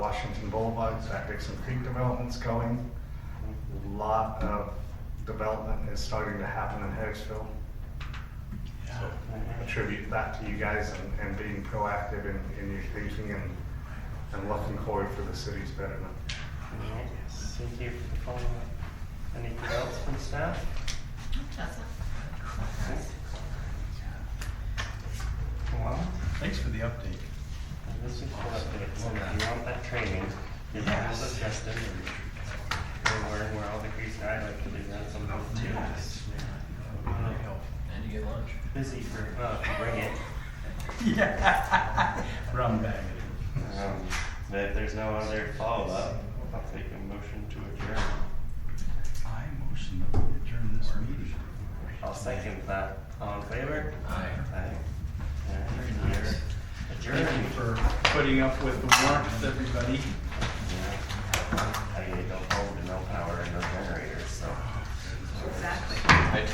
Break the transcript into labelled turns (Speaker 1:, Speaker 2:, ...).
Speaker 1: Washington Boulevard, Dixon Creek development's going. Lot of development is starting to happen in Harrisville. So attribute that to you guys and, and being proactive in, in your thinking and, and looking forward for the city's betterment.
Speaker 2: Alright, Thank you for the follow-up. Anything else from staff? Well,
Speaker 3: Thanks for the update.
Speaker 2: this is for updates, and if you want that training, you're all
Speaker 3: Yes.
Speaker 2: adjusted and we're wearing, we're all degrees, and I like to do that sometimes too. It's
Speaker 3: Really helpful.
Speaker 4: And you get lunch.
Speaker 2: Busy for, uh, if you bring it.
Speaker 3: Yeah. Rum bag.
Speaker 2: Um, But if there's no other follow-up, I'll take a motion to adjourn.
Speaker 3: I motion that we adjourn this meeting.
Speaker 2: I'll second that. All in favor?
Speaker 4: Aye.
Speaker 2: Aye. Alright, we're
Speaker 3: nice.
Speaker 2: Adjourned.
Speaker 3: Thank you for putting up with the warmth, everybody.